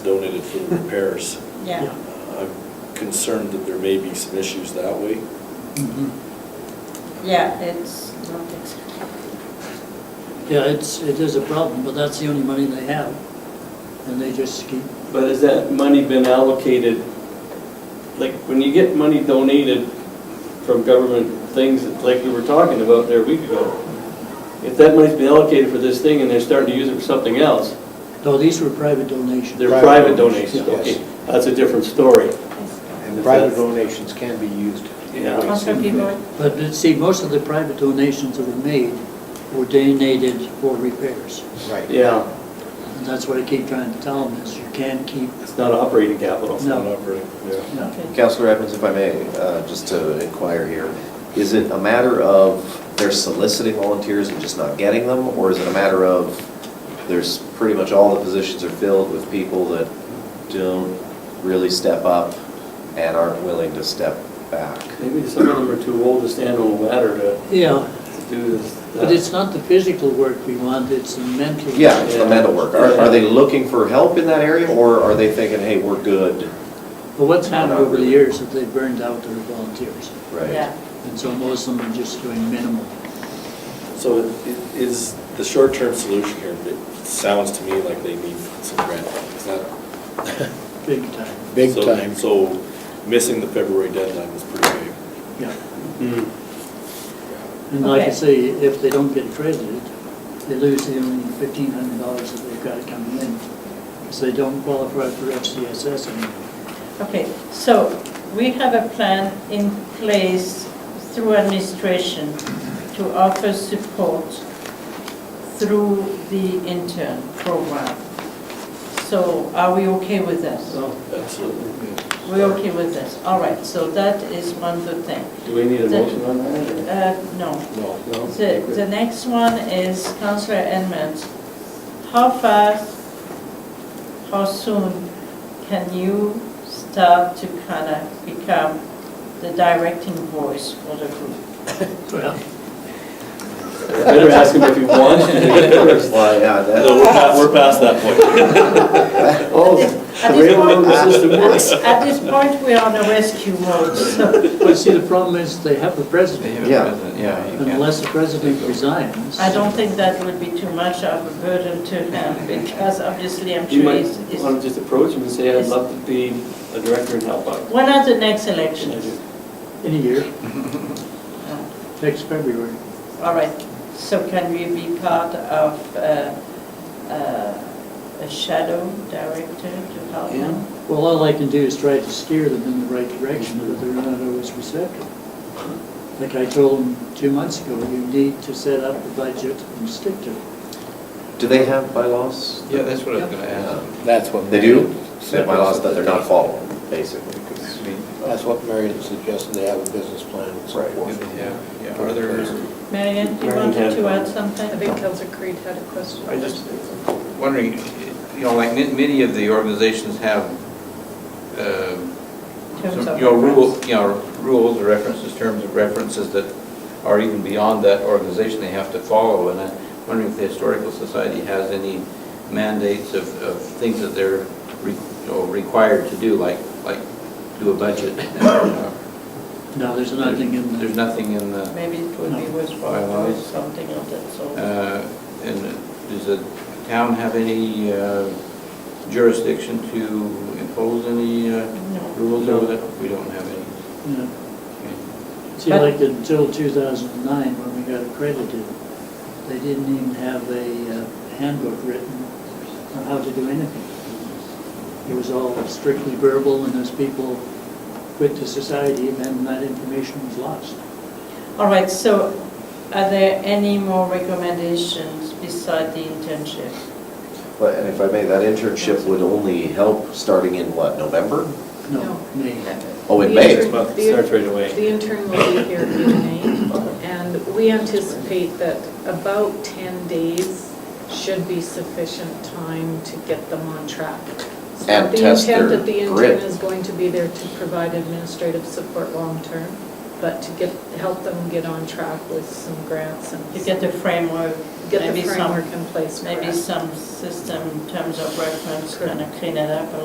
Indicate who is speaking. Speaker 1: donated for the repairs.
Speaker 2: Yeah.
Speaker 1: Uh, I'm concerned that there may be some issues that way.
Speaker 3: Mm-hmm.
Speaker 2: Yeah, it's not fixed.
Speaker 3: Yeah, it's, it is a problem, but that's the only money they have, and they just keep,
Speaker 4: But has that money been allocated? Like, when you get money donated from government things, that- like we were talking about there a week ago, if that money's been allocated for this thing and they're starting to use it for something else,
Speaker 3: no, these were private donations.
Speaker 4: they're
Speaker 5: Private
Speaker 4: private
Speaker 5: donations,
Speaker 4: donations,
Speaker 5: yes.
Speaker 4: okay, that's a different story.
Speaker 5: And private donations can be used. in
Speaker 4: Yeah.
Speaker 5: ways.
Speaker 2: Most of people,
Speaker 3: But, but see, most of the private donations that were made were donated for repairs.
Speaker 5: Right.
Speaker 4: Yeah,
Speaker 3: And that's what I keep trying to tell them, is you can't keep,
Speaker 4: it's not operating capital.
Speaker 3: No.
Speaker 1: Not operating, yeah.
Speaker 3: no.
Speaker 2: okay.
Speaker 6: Counselor Evans, if I may, uh, just to inquire here, is it a matter of they're soliciting volunteers and just not getting them? Or is it a matter of there's pretty much all the positions are filled with people that don't really step up and aren't willing to step back?
Speaker 4: Maybe some of them are too old to stand on a ladder to
Speaker 3: Yeah,
Speaker 4: to do this.
Speaker 3: but it's not the physical work we want, it's the mental.
Speaker 6: Yeah, it's the mental work. Are are they looking for help in that area or are they thinking, hey, we're good?
Speaker 3: But what's happened over the years is they burned out their volunteers,
Speaker 6: Right.
Speaker 2: Yeah.
Speaker 3: and so most of them are just doing minimal.
Speaker 1: So it- it is the short-term solution here, it sounds to me like they need some grant money. It's not-
Speaker 3: Big time,
Speaker 5: Big
Speaker 1: so-
Speaker 5: time.
Speaker 1: So missing the February deadline is pretty big.
Speaker 3: yeah.
Speaker 4: Hmm.
Speaker 3: And like I
Speaker 2: Okay.
Speaker 3: say, if they don't get credited, they lose the only fifteen hundred dollars that they've got coming in, because they don't qualify for FCSS anymore.
Speaker 2: Okay, so we have a plan in place through administration to offer support through the intern program. So are we okay with this?
Speaker 4: So, Oh, absolutely.
Speaker 2: We're okay with this, all right, so that is one good thing.
Speaker 4: Do we need a motion on that? or-
Speaker 2: Uh, no,
Speaker 1: No.
Speaker 4: No?
Speaker 2: The, the next one is Councillor Edmonds. How fast, how soon can you start to kind of become the directing voice for the group?
Speaker 3: Well,
Speaker 4: Better ask him if he wants to do it first.
Speaker 6: Well, yeah,
Speaker 1: No,
Speaker 6: that,
Speaker 1: we're past, we're past that point.
Speaker 4: Oh,
Speaker 2: At
Speaker 4: the
Speaker 2: this
Speaker 4: railroad
Speaker 2: point-
Speaker 4: system works.
Speaker 2: At this point, we're on a rescue mode, so
Speaker 3: But see, the problem is they have the president.
Speaker 6: yeah, yeah. you can't-
Speaker 3: Unless the president resigns.
Speaker 2: I don't think that would be too much of a burden to him, because obviously I'm
Speaker 4: You
Speaker 2: sure
Speaker 4: might
Speaker 2: he's, he's-
Speaker 4: want to just approach him and say, I'd love to be a director and help out.
Speaker 2: when are the next elections?
Speaker 3: In a year, next February.
Speaker 2: All right, so can we be part of uh, uh, a shadow director to help them?
Speaker 3: Well, all I can do is try to steer them in the right direction, but they're not always receptive. Like I told them two months ago, you need to set up the budget and stick to it.
Speaker 6: Do they have bylaws?
Speaker 7: Yeah, that's what I was gonna
Speaker 6: Yeah.
Speaker 7: ask.
Speaker 5: That's what.
Speaker 6: They do? They
Speaker 5: Marion-
Speaker 6: have bylaws that they're not following, basically. 'cause-
Speaker 5: That's what Marion suggested, they have a business plan and so
Speaker 6: Right.
Speaker 5: forth.
Speaker 7: Yeah, yeah, are there,
Speaker 2: Marion, you
Speaker 4: Marion
Speaker 2: wanted
Speaker 4: had-
Speaker 2: to add
Speaker 8: I
Speaker 2: something?
Speaker 8: think Councilor Creed had a question.
Speaker 7: I just wondering, you know, like ma- many of the organizations have, um,
Speaker 2: in terms
Speaker 7: some,
Speaker 2: of
Speaker 7: you know,
Speaker 2: reference?
Speaker 7: rule, you know, rules or references, terms of references that are even beyond that organization they have to follow, and I'm wondering if the Historical Society has any mandates of, of things that they're, re- you know, required to do, like, like do a budget. Uh,
Speaker 3: No, there's nothing in there.
Speaker 7: There's nothing in the.
Speaker 2: Maybe it would be worthwhile to do something of that sort.
Speaker 7: Uh, And does the town have any uh, jurisdiction to impose any uh,
Speaker 2: No.
Speaker 7: rules over that? We don't have any.
Speaker 3: Yeah.
Speaker 7: Okay.
Speaker 3: See, like until 2009, when we got accredited, they didn't even have a uh, handbook written on how to do anything. It was all strictly verbal, and as people quit the society, then that information was lost.
Speaker 7: Uh.
Speaker 2: All right, so are there any more recommendations beside the internship?
Speaker 6: But, and if I may, that internship would only help starting in what, November?
Speaker 3: No, me.
Speaker 6: Oh, in
Speaker 8: The
Speaker 6: May.
Speaker 8: intern-
Speaker 4: Well,
Speaker 8: the-
Speaker 4: it starts right away.
Speaker 8: The intern will be here in May, and we anticipate that about 10 days should be sufficient time to get them on track. So
Speaker 6: And test
Speaker 8: The
Speaker 6: their
Speaker 8: intent that the intern
Speaker 6: grit.
Speaker 8: is going to be there to provide administrative support long-term, but to get, help them get on track with some grants and.
Speaker 2: To get the framework
Speaker 8: get the
Speaker 2: Maybe some-
Speaker 8: framework in place for it.
Speaker 2: Maybe some system in terms of reference kind of clean it up a